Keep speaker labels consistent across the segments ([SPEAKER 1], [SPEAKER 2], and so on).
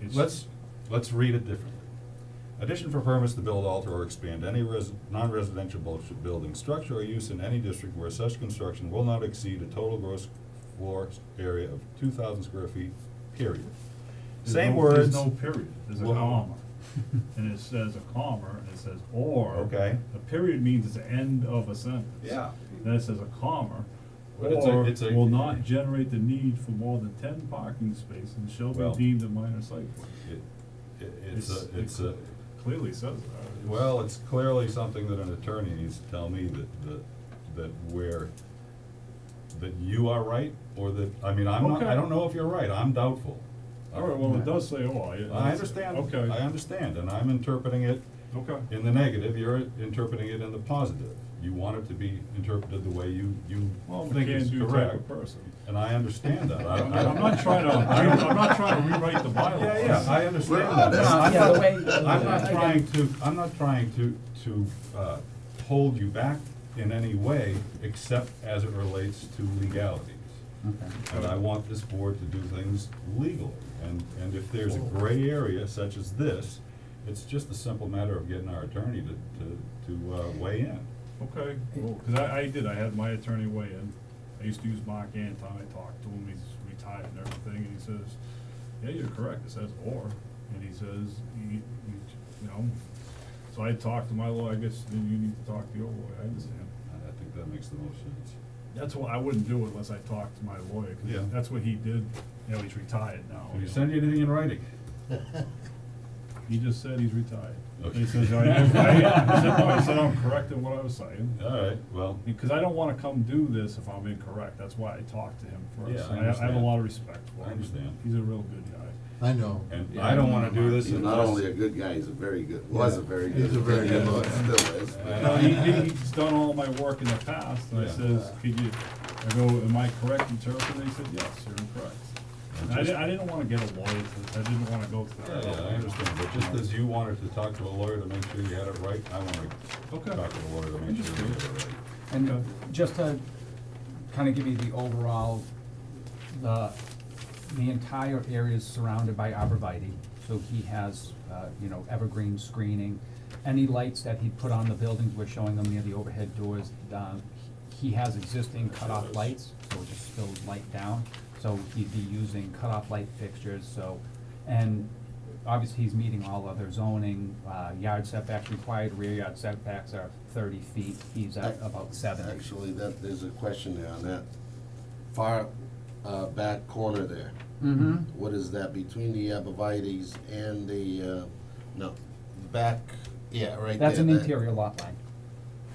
[SPEAKER 1] It's- Let's, let's read it differently. Addition for permits to build, alter, or expand any res, non-residential bu- building, structure or use in any district where such construction will not exceed a total gross floor area of two thousand square feet, period.
[SPEAKER 2] There's
[SPEAKER 1] Same
[SPEAKER 2] no-
[SPEAKER 1] words.
[SPEAKER 2] There's no period, there's a
[SPEAKER 1] Well-
[SPEAKER 2] comma, and it says a comma, and it says or.
[SPEAKER 1] Okay.
[SPEAKER 2] A period means it's the end of a sentence.
[SPEAKER 1] Yeah.
[SPEAKER 2] Then it says a comma,
[SPEAKER 1] But it's a-
[SPEAKER 2] or
[SPEAKER 1] it's a-
[SPEAKER 2] will not generate the need for more than ten parking spaces and shall
[SPEAKER 1] Well-
[SPEAKER 2] be deemed a minor site plan.
[SPEAKER 1] It, it, it's a, it's
[SPEAKER 2] it
[SPEAKER 1] a,
[SPEAKER 2] Clearly says that.
[SPEAKER 1] well, it's clearly something that an attorney needs to tell me that, that, that where, that you are right, or that, I mean, I'm not, I
[SPEAKER 2] Okay.
[SPEAKER 1] don't know if you're right, I'm doubtful.
[SPEAKER 2] All right, well, it does say or. it-
[SPEAKER 1] I understand,
[SPEAKER 2] Okay.
[SPEAKER 1] I understand, and I'm interpreting it
[SPEAKER 2] Okay.
[SPEAKER 1] in the negative, you're interpreting it in the positive. You want it to be interpreted the way you, you
[SPEAKER 2] Well, we
[SPEAKER 1] think
[SPEAKER 2] can't
[SPEAKER 1] is
[SPEAKER 2] do type
[SPEAKER 1] correct,
[SPEAKER 2] of person.
[SPEAKER 1] and I understand that. I-
[SPEAKER 2] I'm
[SPEAKER 1] I-
[SPEAKER 2] I'm not trying to, I'm not trying to rewrite the bylaws.
[SPEAKER 1] Yeah, yeah, I understand
[SPEAKER 3] We're
[SPEAKER 1] that.
[SPEAKER 3] honest.
[SPEAKER 1] I'm
[SPEAKER 3] Yeah,
[SPEAKER 1] not-
[SPEAKER 3] the way-
[SPEAKER 1] I'm not
[SPEAKER 3] again.
[SPEAKER 1] trying to, I'm not trying to, to, uh, hold you back in any way, except as it relates to legalities. And I want this board to do things legally, and, and if there's a gray area such as this, it's just a simple matter of getting our attorney to, to, to uh, weigh in.
[SPEAKER 2] Okay, cool, cause I, I did, I had my attorney weigh in, I used to use Mark Anton, I talked to him, he's retired and everything, and he says, yeah, you're correct, it says or, and he says, you, you, you know, so I talked to my lawyer, I guess, then you need to talk to your lawyer, I understand.
[SPEAKER 1] I I think that makes the most sense.
[SPEAKER 2] That's why I wouldn't do it unless I talked to my lawyer,
[SPEAKER 1] Yeah.
[SPEAKER 2] cause that's what he did, you know, he's retired now.
[SPEAKER 1] Can you send you anything in writing?
[SPEAKER 2] He just said he's retired.
[SPEAKER 1] Okay.
[SPEAKER 2] He says, I, I, I said, "No," I said, I'm correct in what I was saying.
[SPEAKER 1] All right, well,
[SPEAKER 2] Because I don't wanna come do this if I'm incorrect, that's why I talked to him first.
[SPEAKER 1] Yeah, I
[SPEAKER 2] And I, I have a
[SPEAKER 1] understand.
[SPEAKER 2] lot of respect for him.
[SPEAKER 1] I understand.
[SPEAKER 2] He's a real good guy.
[SPEAKER 4] I know.
[SPEAKER 1] and I don't wanna do this
[SPEAKER 3] He's not only a
[SPEAKER 1] unless,
[SPEAKER 3] good guy, he's a very good, was a very good.
[SPEAKER 4] He's a very good
[SPEAKER 3] lawyer,
[SPEAKER 4] lawyer.
[SPEAKER 3] Still is.
[SPEAKER 2] No,
[SPEAKER 1] I know.
[SPEAKER 2] he, he- he's done all my work in the past, and I
[SPEAKER 1] Yeah.
[SPEAKER 2] says, could you, I go, am I correct in interpreting? He said, yes, you're incorrect. And I didn't, I didn't wanna get a lawyer, to- I didn't wanna go to
[SPEAKER 1] yeah,
[SPEAKER 2] that.
[SPEAKER 1] yeah, I understand, but just as you wanted to talk to a lawyer to make sure you had it right, I wanna
[SPEAKER 2] Okay.
[SPEAKER 1] talk to a lawyer to make sure you had it right.
[SPEAKER 2] Okay.
[SPEAKER 5] And uh, just to kind of give you the overall, the, the entire area is surrounded by arborvitae. So he has, uh, you know, evergreen screening. Any lights that he put on the buildings, we're showing them near the overhead doors. um, He has existing cutoff lights, so it just spills light down. So he'd be using cutoff light fixtures, so, and obviously he's meeting all other zoning, uh, yard setbacks required, rear yard setbacks are thirty feet, he's at about seventy.
[SPEAKER 3] Actually, that, there's a question there on that far, uh, back corner there.
[SPEAKER 5] Mm-hmm.
[SPEAKER 3] What is that, between the abrevieties and the, uh, no, the back, yeah, right there.
[SPEAKER 5] That's an
[SPEAKER 3] that-
[SPEAKER 5] interior lot line.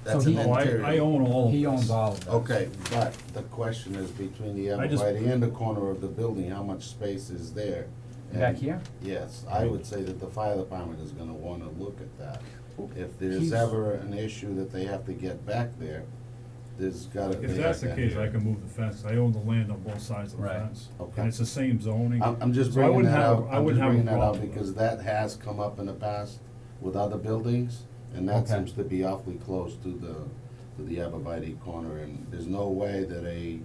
[SPEAKER 3] That's
[SPEAKER 5] so
[SPEAKER 3] an
[SPEAKER 5] he-
[SPEAKER 2] Oh,
[SPEAKER 3] interior.
[SPEAKER 2] I, I own all of
[SPEAKER 5] uh, He
[SPEAKER 2] this.
[SPEAKER 5] owns all of that.
[SPEAKER 3] Oh, Okay, but the question is between the
[SPEAKER 2] I just-
[SPEAKER 3] abrevieties and the corner of the building, how much space is there?
[SPEAKER 5] Back
[SPEAKER 3] And-
[SPEAKER 5] here?
[SPEAKER 3] Yes, I would say that the fire department is gonna wanna look at that. If there's
[SPEAKER 5] He's-
[SPEAKER 3] ever an issue that they have to get back there, there's gotta be.
[SPEAKER 2] If that's the
[SPEAKER 3] like
[SPEAKER 2] case,
[SPEAKER 3] that.
[SPEAKER 2] I can move the fence, I own the land on both sides of the
[SPEAKER 5] Right.
[SPEAKER 2] fence.
[SPEAKER 3] Okay.
[SPEAKER 2] And it's the same zoning.
[SPEAKER 3] I'm, I'm just
[SPEAKER 2] So I
[SPEAKER 3] bringing
[SPEAKER 2] wouldn't
[SPEAKER 3] that
[SPEAKER 2] have-
[SPEAKER 3] out,
[SPEAKER 2] I
[SPEAKER 3] I'm
[SPEAKER 2] wouldn't
[SPEAKER 3] just
[SPEAKER 2] have a
[SPEAKER 3] bringing that out
[SPEAKER 2] problem with
[SPEAKER 3] because that has come up in the past with other buildings, and that
[SPEAKER 5] Okay.
[SPEAKER 3] seems to be awfully close to the, to the Abavite corner, and there's no way that a,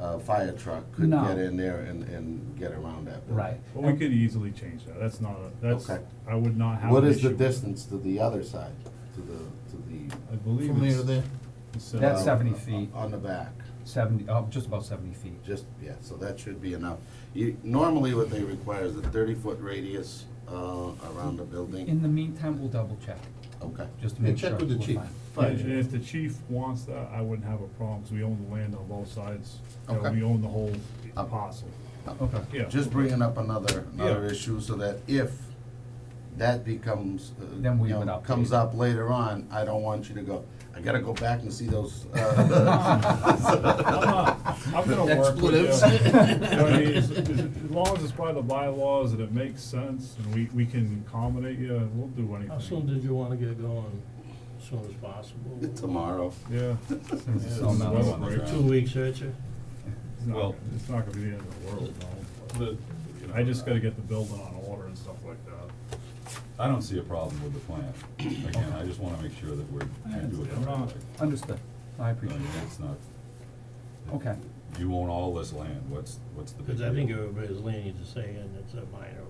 [SPEAKER 3] uh, fire truck could
[SPEAKER 5] No.
[SPEAKER 3] get in there and, and get around that building.
[SPEAKER 5] Right.
[SPEAKER 2] But we could easily change that, that's not, a that's,
[SPEAKER 3] Okay.
[SPEAKER 2] I would not have
[SPEAKER 3] What
[SPEAKER 2] an
[SPEAKER 3] is
[SPEAKER 2] issue
[SPEAKER 3] the
[SPEAKER 2] with it.
[SPEAKER 3] distance to the other side, to the, to the?
[SPEAKER 2] I believe
[SPEAKER 4] From there
[SPEAKER 2] it's.
[SPEAKER 4] to there,
[SPEAKER 2] it's, uh,
[SPEAKER 5] That's
[SPEAKER 3] uh,
[SPEAKER 5] seventy feet,
[SPEAKER 3] On the back.
[SPEAKER 5] seventy, oh, just about seventy feet.
[SPEAKER 3] Just, yeah, so that should be enough. You, normally what they require is a thirty-foot radius, uh, around the building.
[SPEAKER 5] In the meantime, we'll double check,
[SPEAKER 3] Okay.
[SPEAKER 5] just to
[SPEAKER 4] Yeah,
[SPEAKER 5] make sure.
[SPEAKER 4] check with the
[SPEAKER 5] we're
[SPEAKER 4] chief.
[SPEAKER 5] fine.
[SPEAKER 2] yeah,
[SPEAKER 4] Fire
[SPEAKER 2] And
[SPEAKER 4] chief.
[SPEAKER 2] if the chief wants that, I wouldn't have a problem, because we own the land on both sides. You know,
[SPEAKER 3] Okay.
[SPEAKER 2] We own the whole
[SPEAKER 3] Um,
[SPEAKER 2] parcel,
[SPEAKER 5] Okay.
[SPEAKER 2] yeah.
[SPEAKER 3] Just bringing up another, another
[SPEAKER 2] Yeah.
[SPEAKER 3] issue so that if that becomes, uh,
[SPEAKER 5] Then we
[SPEAKER 3] you know,
[SPEAKER 5] would update
[SPEAKER 3] comes
[SPEAKER 5] it.
[SPEAKER 3] up later on, I don't want you to go, I gotta go back and see those, uh.
[SPEAKER 2] I'm not, I'm gonna work with you.
[SPEAKER 3] Expletives.
[SPEAKER 2] You know what I mean? As as long as it's by the bylaws and it makes sense, and we, we can accommodate you, we'll do anything.
[SPEAKER 6] How soon did you wanna get going? As soon as possible?
[SPEAKER 3] Tomorrow.
[SPEAKER 2] Yeah.
[SPEAKER 5] Since it's
[SPEAKER 2] Yeah,
[SPEAKER 5] so
[SPEAKER 2] this is
[SPEAKER 5] mellow
[SPEAKER 2] weather
[SPEAKER 5] on the
[SPEAKER 2] break.
[SPEAKER 5] ground.
[SPEAKER 6] Two weeks, aren't you?
[SPEAKER 2] It's not,
[SPEAKER 1] Well-
[SPEAKER 2] gonna- it's not gonna be the end of the world, no.
[SPEAKER 1] The- you know,
[SPEAKER 2] I just gotta get the building on order and stuff like that.
[SPEAKER 1] I don't see a problem with the plan. Again, I just wanna make sure that we're, we do it the right way.
[SPEAKER 5] Understood, I
[SPEAKER 1] I
[SPEAKER 5] appreciate
[SPEAKER 1] mean,
[SPEAKER 5] it.
[SPEAKER 1] It's not.
[SPEAKER 5] Okay.
[SPEAKER 1] You own all this land, what's, what's the big
[SPEAKER 6] Cause
[SPEAKER 1] deal?
[SPEAKER 6] I think everybody's leaning to saying it's a minor